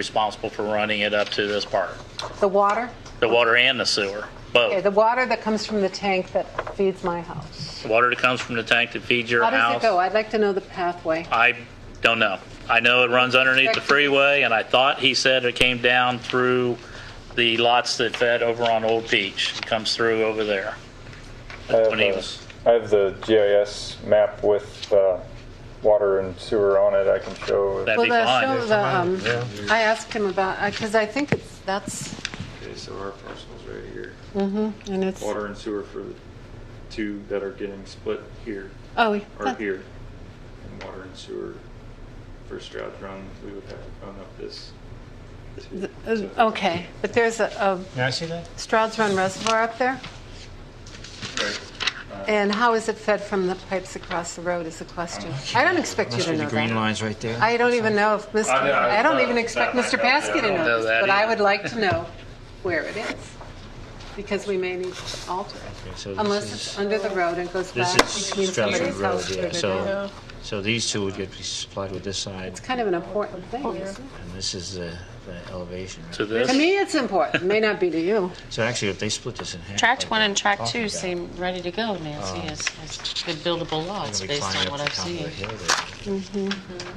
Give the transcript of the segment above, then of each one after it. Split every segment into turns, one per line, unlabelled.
responsible for running it up to this park,
The water?
the water and the sewer,
Okay,
both.
the water that comes from the tank that feeds my house.
Water that comes from the tank that feeds your
How
house. Uh,
does it go? I'd like to know the pathway.
I don't know. I know it runs underneath the freeway, and I thought he said it came down through the lots that fed over on Old Peach. It comes through over there.
I have,
When he
uh,
was,
I have the GIS map with uh, water and sewer on it. I can show.
That-
Well,
be
the
fine.
show, the, um, I asked him about, because I think it's, that's,
Okay, so our parcel's right here.
and it's,
Water and sewer for the two that are getting split here,
oh,
or
that-
here. And water and sewer for Stroud Run, we would have to run up this. to-
uh,
to-
okay. But there's a
Can I see that?
a Stroud's Run Reservoir up there,
right.
and how is it fed from the pipes across the road is the question. I don't expect you to know
The green
that.
line's right there.
I don't even know if Mr.,
I know, I-
I don't
uh,
even expect
that
Mr.
might help.
Paskey to
I don't
know
know
this,
that
but I
either.
would like to know where it is, because we may need to alter it.
Okay, so
Unless
this
it's
is-
under the road and goes
This
back between
is Stratford
somebody's
Road,
house.
yeah,
or their-
so, so these two would get supplied with this side,
It's kind of an important thing, isn't it?
and this is the, the elevation. right?
to
To
this,
me, it's important, may not be to you.
So actually, if they split this in half.
Tract
like
one
they're
and tract
talking
two
about,
seem ready to go, Nancy, as, as good buildable
they're
lots
gonna be
based
climbing
on
up
what
the
I've
top of the
seen.
hill there.
Mm-hmm.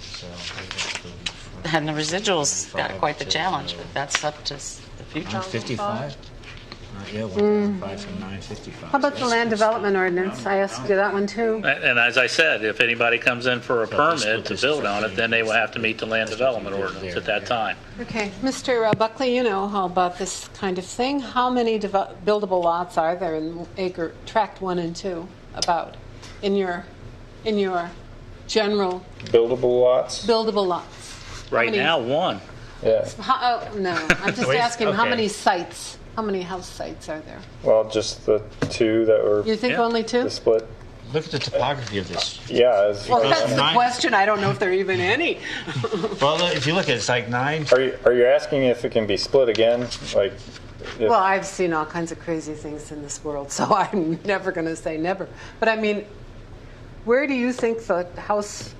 So, they'd have to go in front.
And the residuals got
Five
quite the
to,
challenge,
uh,
but that's up to s- the future.
955? Not yet, 155 from 955.
Mm. How about the land development ordinance? I asked you that one too.
and as I said, if anybody comes in for a
But this-
permit to
this
build
is
on it, then they will have to meet the land development ordinance at that time.
Okay, Mr. Buckley, you know how about this kind of thing. How many devel- buildable lots are there in acre, tract one and two, about, in your, in your general
Buildable lots.
buildable lots?
Right
many-
now, one.
Yeah.
How, oh, no, I'm just
Wait,
asking, how
okay.
many sites, how many house sites are there?
Well, just the two that were
You think
Yeah.
only two?
the split.
Look at the topography of this.
Yeah. As,
Well,
Because
that's the
uh, nine-
question. I don't know if there are even any.
Well, look, if you look, it's like nine,
are you are you asking if it can be split again? Like. If,
Well, I've seen all kinds of crazy things in this world, so I'm never going to say never. But I mean, where do you think the house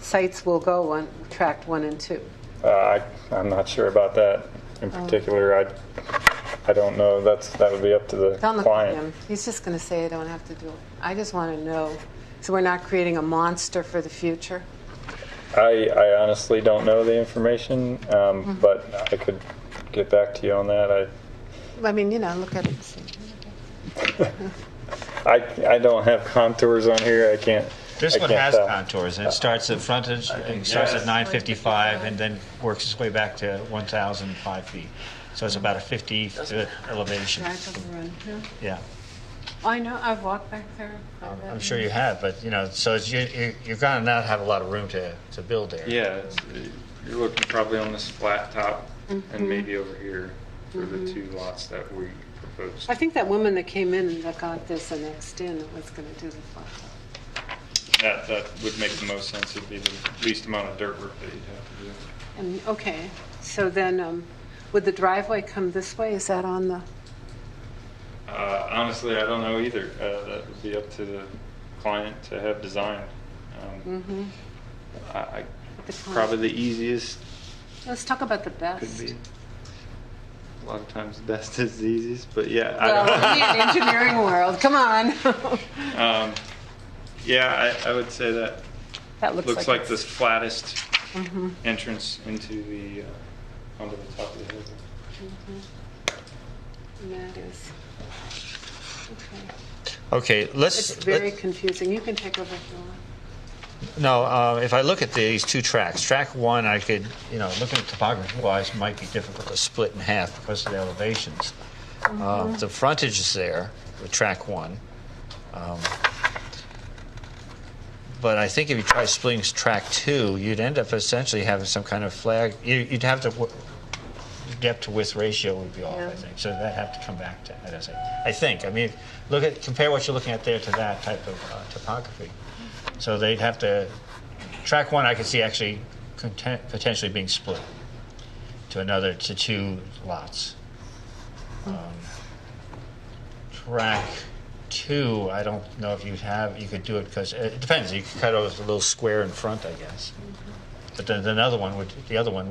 sites will go on tract one and two?
uh, I, I'm not sure about that in particular. I I don't know. That's that would be up to the
Don't look
client.
at him. He's just going to say I don't have to do it. I just want to know, so we're not creating a monster for the future.
I, I honestly don't know the information, um, but I could get back to you on that. I
I mean, you know, look at it. and see.
I, I don't have contours on here. I can't.
This
I
one
can't
has
uh,
tell.
contours, and it starts at frontage, it starts at 955, and then works its way back to 1,005 feet. So it's about a 50-foot elevation,
Drive up the road, yeah.
yeah.
I know. I've walked back there.
I'm sure you have, but, you know, so it's- you- you- you're going to not have a lot of room to, to build there.
Yeah, it's- you're looking probably on this flat top and maybe over here for the two lots that we proposed.
I think that woman that came in that got this annexed in was going to do the flat top.
That, that would make the most sense, it'd be the least amount of dirt work that you'd have to do.
And, okay, so then, um, would the driveway come this way? Is that on the,
Uh, honestly, I don't know either. Uh, that would be up to the client to have designed.
Mm.
Um, I, I,
the client.
probably the easiest
let's talk about the
could
best.
be. A lot of times, the best is the easiest, but yeah, I don't.
Well, in the engineering world, come on.
Um, yeah, I, I would say that
That
looks, like, the flattest entrance into the uh, onto the top of the hill.
That is, okay.
Okay,
It's
let's,
very confusing. You can take over if you want.
No, uh, if I look at these two tracks, track one, I could, you know, looking at topography wise, might be difficult to split in half because of the elevations. Um, the frontage is there with track one. Um, but I think if you try splitting track two, you'd end up essentially having some kind of flag. You, you'd have to, w- depth to width ratio would be off, I think. So that'd have to come back to that, I think. I think. I mean, look at, compare what you're looking at there to that type of uh, topography. So they'd have to, track one, I could see actually content, potentially being split to another, to two lots. Um, Track two, I don't uh, know if you'd have, you could do it because, it depends, you could cut off a little square in front, I guess. But then another one would, the other one